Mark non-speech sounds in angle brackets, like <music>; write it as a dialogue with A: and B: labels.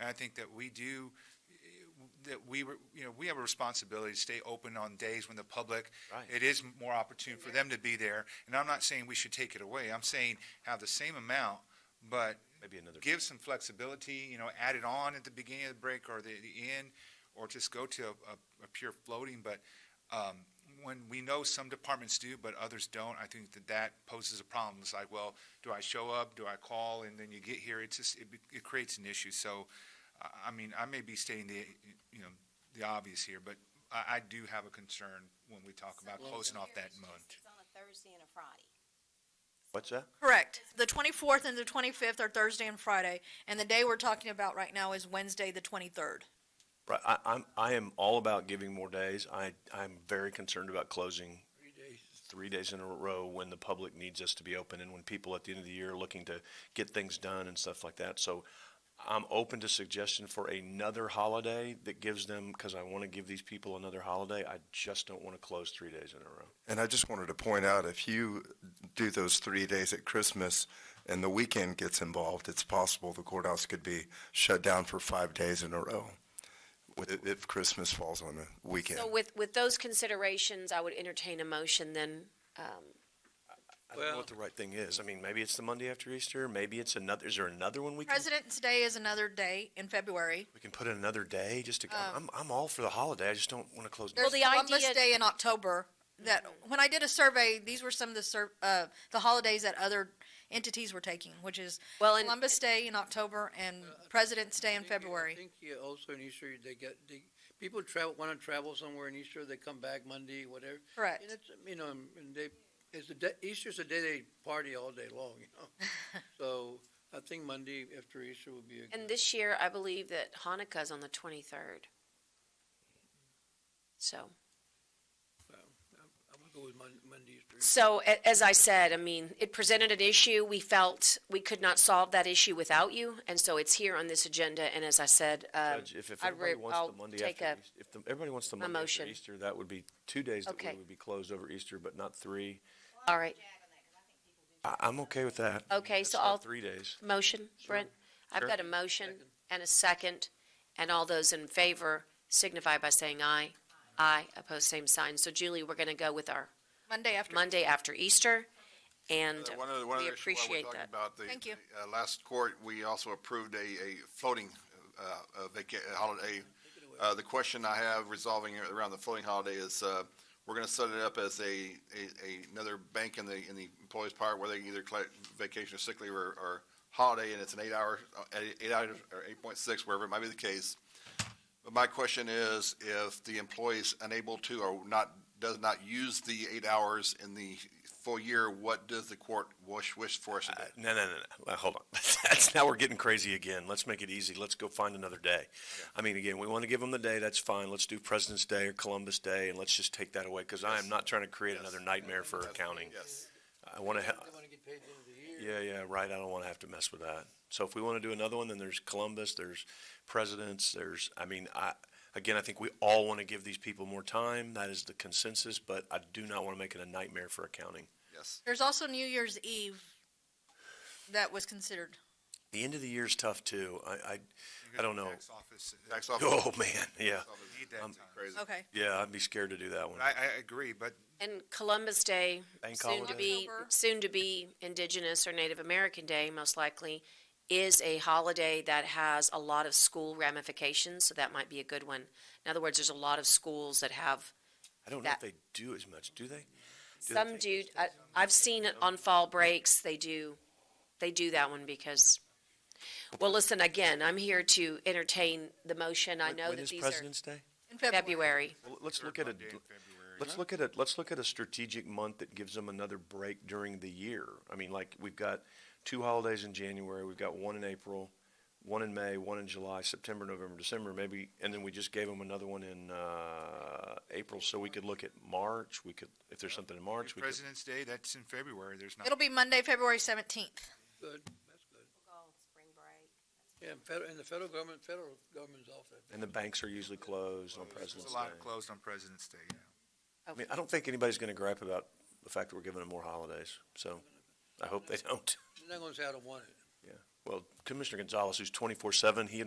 A: And I think that we do, that we, were- you know, we have a responsibility to stay open on days when the public,
B: Right.
A: it is more opportune for them to be there. And I'm not saying we should take it away. I'm saying have the same amount, but
B: Maybe another.
A: give some flexibility, you know, add it on at the beginning of the break or the, the end, or just go to a, a, a pure floating, but, um, when we know some departments do, but others don't, I think that that poses a problem. It's like, well, do I show up? Do I call? And then you get here, it's just, it, be- it creates an issue. So, I, I mean, I may be stating the, you know, the obvious here, but I, I do have a concern when we talk about closing off that month.
C: It's on a Thursday and a Friday.
B: What's that?
D: Correct. The 24th and the 25th are Thursday and Friday, and the day we're talking about right now is Wednesday, the 23rd.
B: Right, I, I'm, I am all about giving more days. I, I'm very concerned about closing three days in a row when the public needs us to be open and when people at the end of the year are looking to get things done and stuff like that. So I'm open to suggestion for another holiday that gives them, because I want to give these people another holiday. I just don't want to close three days in a row.
E: And I just wanted to point out, if you do those three days at Christmas and the weekend gets involved, it's possible the courthouse could be shut down for five days in a row with- if Christmas falls on the weekend.
F: So with, with those considerations, I would entertain a motion then, um,
B: I don't know what the right thing is. I mean, maybe it's the Monday after Easter, maybe it's another, is there another one we can?
D: President's Day is another day in February.
B: We can put in another day just to, I'm, I'm all for the holiday. I just don't want to close.
D: There's
F: Um, the
D: Columbus
F: idea-
D: Day in October that, when I did a survey, these were some of the ser, uh, the holidays that other entities were taking, which is
F: Well, and-
D: Columbus Day in October and President's Day in
G: think- I
D: February.
G: think yeah, also in Easter, they get, they, people travel, want to travel somewhere in Easter, they come back Monday, whatever.
D: Correct.
G: And it's, you know, and they, it's the, day- Easter's the day they party all day long, you
D: <laughs>
G: know? So I think Monday after Easter would be a good.
F: and this year, I believe that Hanukkah's on the twenty-third. So,
G: I'm gonna go with Mon- Monday after. Easter.
F: so a- as I said, I mean, it presented an issue. We felt we could not solve that issue without you, and so it's here on this agenda, and as I said, um,
B: Judge, if, if
F: I
B: everybody
F: re-
B: wants
F: I'll
B: the Monday
F: take
B: after,
F: a-
B: Eas- if the- everybody wants the Monday after
F: motion.
B: Easter, that would be two days that
F: Okay.
B: we would be closed over Easter, but not three.
F: All right,
B: I, I'm okay with that.
F: Okay,
B: That's
F: so
B: not
F: I'll-
B: Three days.
F: motion, Brent? I've
B: Sure.
F: got a motion and a second, and all those in favor signify by saying aye. Aye, opposed, same sign. So Julie, we're gonna go with our
D: Monday after.
F: Monday after Easter, and
H: Uh, One other, one
F: we
H: other issue while we're
F: appreciate
H: talking
F: that.
H: about the.
D: Thank you.
H: the, uh, Last court, we also approved a, a floating, uh, uh, vaca, uh, holiday. Uh, the question I have resolving around the floating holiday is, uh, we're gonna set it up as a, a, another bank in the, in the employee's part where they can either collect vacation or sick leave or, or holiday, and it's an uh, eight-hour, eight-hour, or eight-point-six, wherever it might be the case. But my question is, if the employee's unable to or not, does not use the eight hours in the full year, what does the court wish, wish for us to do?
B: Uh, No, no, no, no. Well, hold on. <laughs> That's, now we're getting crazy again. Let's make it easy. Let's go find another day. I mean, again, we want to give them the day. That's fine. Let's do President's Day or Columbus Day and let's just take that away because I am not trying to create another nightmare for accounting.
H: Yes.
B: I want to,
G: They want to get paid at the end of the year.
B: Yeah, yeah, right. I don't want to have to mess with that. So if we want to do another one, then there's Columbus, there's presidents, there's, I mean, I, again, I think we all want to give these people more time. That is the consensus, but I do not want to make it a nightmare for accounting.
H: Yes.
D: There's also New Year's Eve that was considered.
B: The end of the year is tough too. I, I, I don't know.
A: Tax office, uh, <laughs>
H: Tax office.
B: Oh, man, yeah.
A: need that time.
H: Crazy.
D: Okay.
B: Yeah, I'd be scared to do that one.
A: But I, I agree, but
F: And Columbus Day,
B: Bank
F: soon to
B: holiday.
F: be,
D: October.
F: soon to be Indigenous or Native American Day, most likely, is a holiday that has a lot of school ramifications, so that might be a good one. In other words, there's a lot of schools that have,
B: I don't know if
F: that-
B: they do as much, do they? Do they
F: some
B: take-
F: do, I, I've seen it on fall breaks, they do, they do that one because, well, listen, again, I'm here to entertain the motion. I
B: When-
F: know
B: when
F: that
B: is
F: these are
B: President's Day?
D: In
F: February.
B: Well, let's
A: third
B: look at it.
A: Monday in February.
B: Let's look at it, let's look at a strategic month that gives them another break during the year. I mean, like, we've got two holidays in January, we've got one in April, one in May, one in July, September, November, December, maybe, and then we just gave them another one in, uh, April, so we could look at March, we could, if there's something in March, we could.
A: President's Day, that's in February, there's not.
D: It'll be Monday, February 17th.
G: Good, that's good.
C: We'll go spring break.
G: Yeah, and federal, and the federal government, federal government's off that.
B: And the banks are usually closed on President's
A: There's a
B: Day.
A: lot closed on President's Day, yeah.
B: I mean, I don't think anybody's gonna gripe about the fact that we're giving them more holidays, so I hope they don't.
G: They're not going to say I don't want it.
B: Well, Commissioner Gonzalez, who's twenty-four seven, he